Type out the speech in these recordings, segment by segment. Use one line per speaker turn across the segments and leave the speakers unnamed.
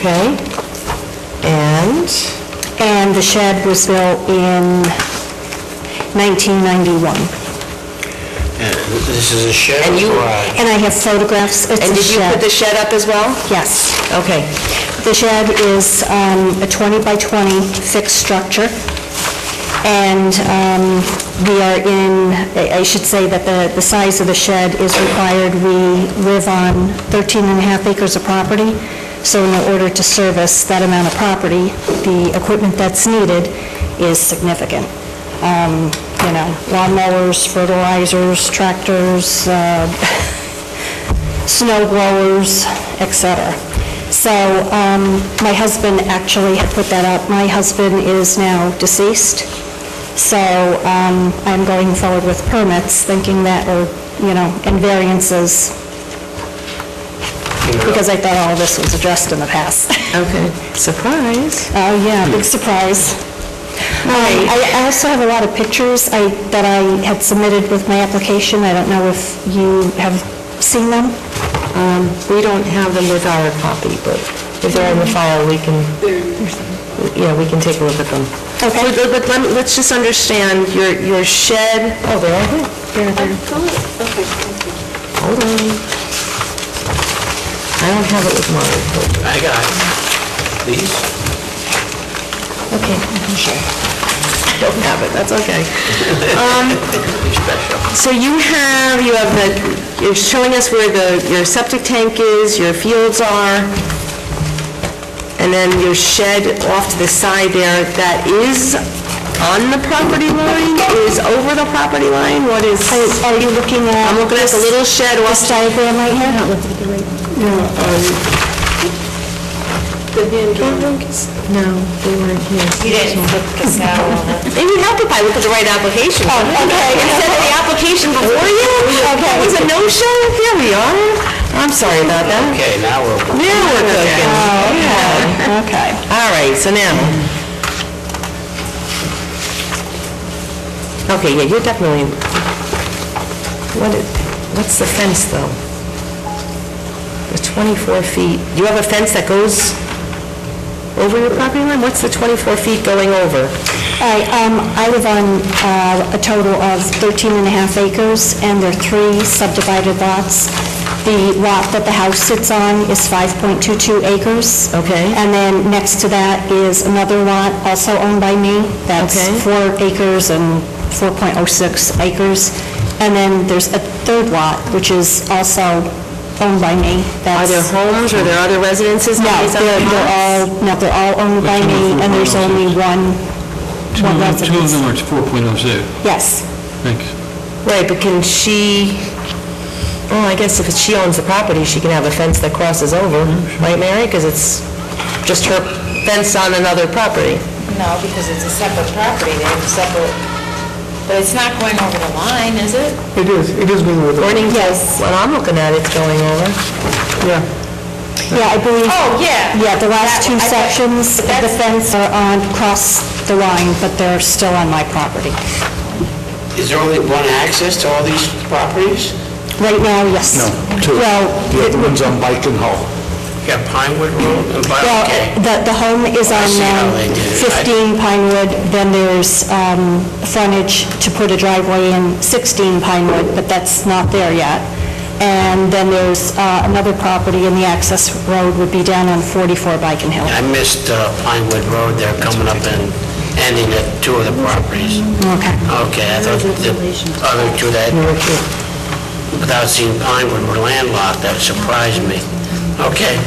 Okay, and,
And the shed was built in 1991.
And This is a shed
And
or
you-
garage?
And I have photographs. It's
and
a
did you put
shed.
the shed up as well?
Yes.
Okay,
The shed is um, a 20 by 20 fixed structure, and um, we are in, I I should say that the the size of the shed is required. We live on 13 and a half acres of property, so in order to service that amount of property, the equipment that's needed is significant. Um, You know, lawnmowers, fertilizers, tractors, uh, snow blowers, et cetera. So um, my husband actually had put that up. My husband is now deceased, so um, I'm going forward with permits, thinking that, or, you know, and variances, because I thought all of this was addressed in the past.
okay, surprise.
Oh, yeah, big surprise. Um, I I also have a lot of pictures I- that I had submitted with my application. I don't know if you have seen them.
Um, We don't have them with our copy, but if they're in the file, we can, yeah, we can take a look at them.
Okay.
But- But let me- let's just understand, your your shed, oh, they're all here. They're- they're- Hold on. I don't have it with mine, but...
I got these.
Okay, sure. Don't have it, that's okay. Um, So you have, you have the, you're showing us where the, your septic tank is, your fields are, and then your shed off to the side there that is on the property line, is over the property line, what is?
Are you looking at...
I'm looking at the little shed
This
off,
diagram right here?
no, they weren't here.
You didn't put Casal on it.
It would help if I looked at the right application. Oh, okay. Instead of the application before you, that was a no-show, here we are. I'm sorry about that.
Okay, now we're...
Now we're cooking. Oh, okay. All right, so now. Okay, yeah, you're definitely, what, i- what's the fence, though? The 24 feet, you have a fence that goes over your property line? What's the 24 feet going over?
All right, um, I live on uh, a total of 13 and a half acres, and there are three subdivided lots. The lot that the house sits on is 5.22 acres.
Okay.
And then next to that is another lot also owned by me. That's
Okay.
four acres and 4.06 acres. And then there's a third lot, which is also owned by me.
Are
That's-
there homes, or there other residences?
No,
on these other
they're they're all,
lots?
no, they're all owned by me, and there's only one,
Two
one
of them- two of
residence.
them are 4.06,
Yes.
thanks.
Right, but can she, well, I guess if she owns the property, she can have a fence that crosses over,
Mm-hmm.
right, Mary? Because it's just her fence on another property.
No, because it's a separate property, they have a separate, but it's not going over the line, is it?
It is, it is going over,
According to what I'm looking at, it's going over.
yeah.
Yeah, I believe,
Oh, yeah.
yeah, the last two
That- I thought-
sections of the
that's-
fence are on, cross the line, but they're still on my property.
Is there only one access to all these properties?
Right now, yes. Well,
The other one's on Bacon Hall.
You got Pinewood Road and
well,
Biotic.
the, the home is
I
on
see how
um,
they did it. I-
15 Pinewood, then there's um, frontage to put a driveway in 16 Pinewood, but that's not there yet. And then there's uh, another property, and the access road would be down on 44 Beacon Hill.
I missed uh, Pinewood Road, they're coming up and ending at two of the properties.
Okay.
Okay, I thought the other two that, without seeing Pinewood, were landlocked, that surprised me. Okay.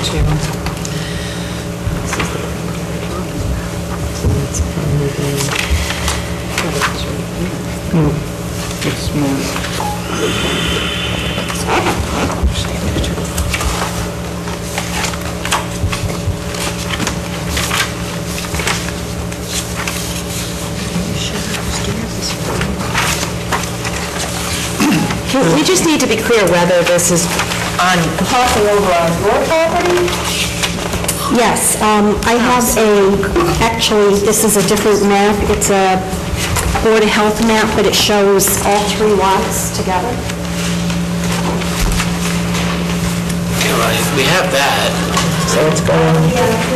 We just need to be clear whether this is on, crossing over on your property?
Yes, um, I have a, actually, this is a different map. It's a Board of Health map, but it shows all three lots together.
All right, we have that.
so it's going